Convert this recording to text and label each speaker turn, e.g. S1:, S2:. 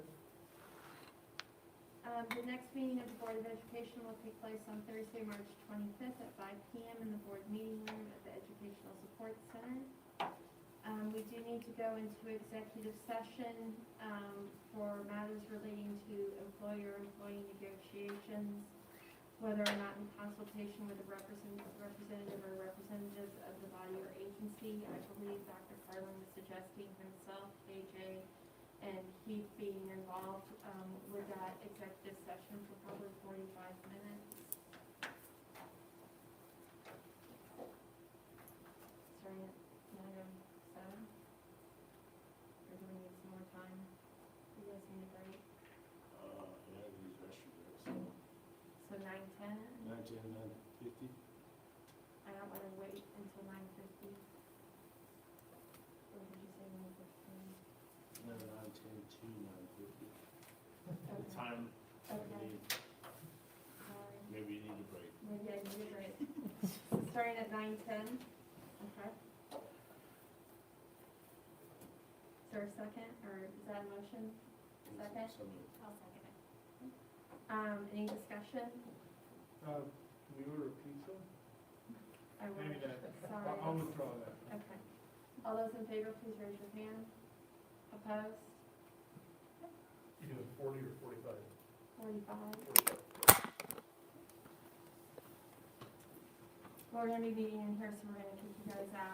S1: Um, the next meeting of the Board of Education will take place on Thursday, March twenty-fifth at five P M in the board meeting room at the Educational Support Center. Um, we do need to go into executive session, um, for matters relating to employer-employee negotiations, whether or not in consultation with a represent- representative or representatives of the body or agency. I believe Dr. Carlin was suggesting himself, KJ, and he being involved um, with that executive session for probably 45 minutes. Starting at 9:07? Or do we need some more time? You guys need a break?
S2: Uh, yeah, we use restrooms,
S1: So
S2: so
S1: 9:10?
S2: nine ten, nine fifty,
S1: I don't want to wait until 9:50. Or did you say 9:15?
S2: no, nine ten to nine fifty.
S1: Okay,
S2: The time,
S1: Okay.
S2: maybe,
S1: sorry.
S2: maybe you need a break.
S1: Maybe I can get it. So starting at nine ten, okay? Is there a second, or is that a motion? Second?
S2: So moved.
S1: I'll second it. Um, any discussion?
S3: Uh, Can we order a pizza?
S1: I will,
S3: Maybe that, I'll I'll
S1: sorry.
S3: withdraw that.
S1: Okay. All those in favor, please raise your hand. Opposed?
S4: Either forty or forty-five.
S1: Forty-five. We're gonna be meeting in here, so we're gonna kick you guys out.